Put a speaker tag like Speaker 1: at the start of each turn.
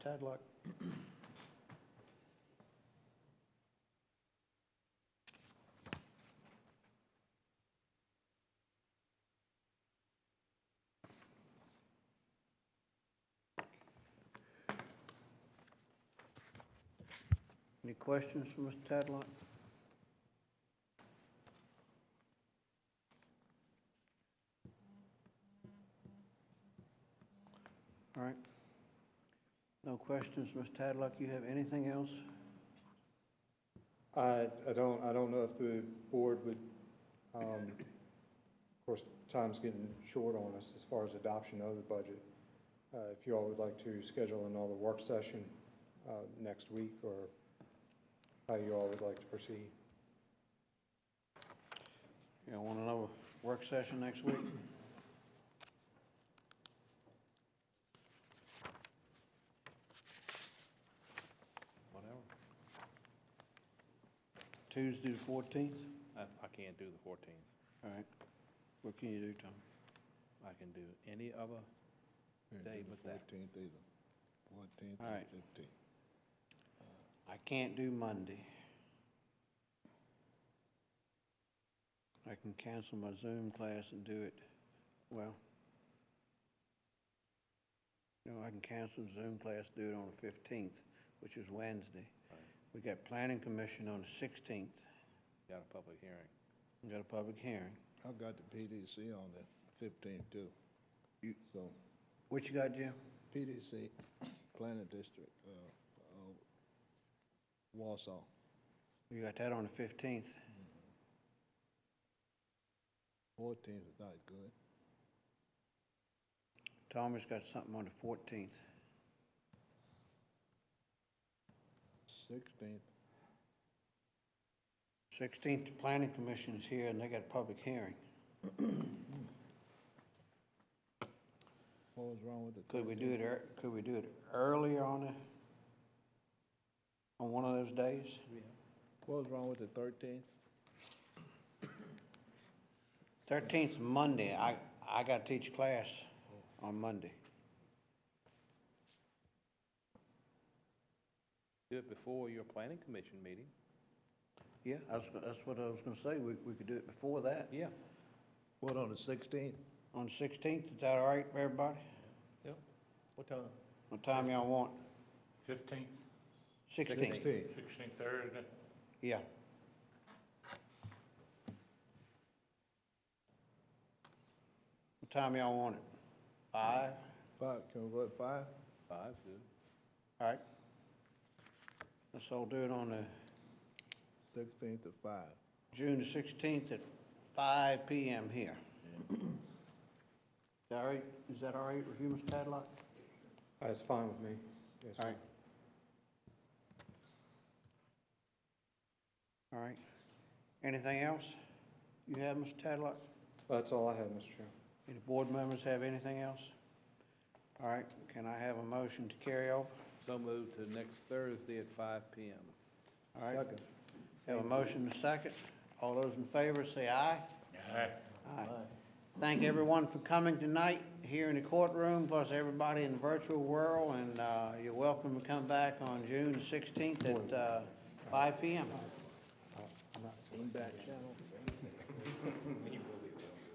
Speaker 1: Tadlock. Any questions for Mr. Tadlock? All right. No questions, Ms. Tadlock, you have anything else?
Speaker 2: I, I don't, I don't know if the board would, um, of course, time's getting short on us as far as adoption of the budget. Uh, if you all would like to schedule another work session, uh, next week, or how you all would like to proceed.
Speaker 1: You want another work session next week?
Speaker 3: Whatever.
Speaker 1: Tuesday the fourteenth?
Speaker 3: I, I can't do the fourteenth.
Speaker 1: All right. What can you do, Tom?
Speaker 3: I can do any other, day but that.
Speaker 4: Fourteenth either, fourteenth
Speaker 1: All
Speaker 4: or
Speaker 1: right.
Speaker 4: fifteenth.
Speaker 1: I can't do Monday. I can cancel my Zoom class and do it, well, no, I can cancel the Zoom class, do it on the fifteenth, which is Wednesday.
Speaker 3: Right.
Speaker 1: We got planning commission on the sixteenth,
Speaker 3: got a public hearing.
Speaker 1: we got a public hearing.
Speaker 4: I've got the PDC on the fifteenth too.
Speaker 1: You-
Speaker 4: So,
Speaker 1: What you got, Jim?
Speaker 4: PDC, Planning District, uh, uh, Wausau.
Speaker 1: You got that on the fifteenth,
Speaker 4: Fourteenth is not good.
Speaker 1: Thomas got something on the fourteenth.
Speaker 4: Sixteenth,
Speaker 1: Sixteenth, the planning commission is here, and they got a public hearing.
Speaker 4: what was wrong with the?
Speaker 1: Could we
Speaker 4: 13th?
Speaker 1: do it, ear- could we do it earlier on a, on one of those days?
Speaker 4: What was wrong with the thirteenth?
Speaker 1: Thirteenth's Monday, I, I gotta teach class on Monday.
Speaker 3: Do it before your planning commission meeting.
Speaker 1: Yeah, that's, that's what I was gonna say, we, we could do it before that.
Speaker 3: Yeah.
Speaker 4: What, on the sixteenth?
Speaker 1: On sixteenth, is that all right for everybody?
Speaker 3: Yep. What time?
Speaker 1: What time y'all want?
Speaker 5: Fifteenth,
Speaker 1: Sixteenth,
Speaker 5: sixteenth Thursday,
Speaker 1: yeah. What time y'all want it? Five?
Speaker 4: Five, can we go at five?
Speaker 3: Five's good.
Speaker 1: All right. Let's all do it on the
Speaker 4: Sixteenth at five.
Speaker 1: June the sixteenth at five PM here. Is that all right, is that all right with you, Mr. Tadlock?
Speaker 2: That's fine with me. Yes,
Speaker 1: All
Speaker 2: ma'am.
Speaker 1: right. All right. Anything else you have, Mr. Tadlock?
Speaker 2: That's all I have, Mr. Chairman.
Speaker 1: Any board members have anything else? All right, can I have a motion to carry over?
Speaker 3: So move to next Thursday at five P M.
Speaker 1: All right,
Speaker 4: Second.
Speaker 1: have a motion to second. All those in favor say aye.
Speaker 5: Aye.
Speaker 1: Aye. Thank everyone for coming tonight here in the courtroom, plus everybody in the virtual world, and uh, you're welcome to come back on June 16th at uh, 5 PM.
Speaker 2: I'm not. Back channel.
Speaker 5: You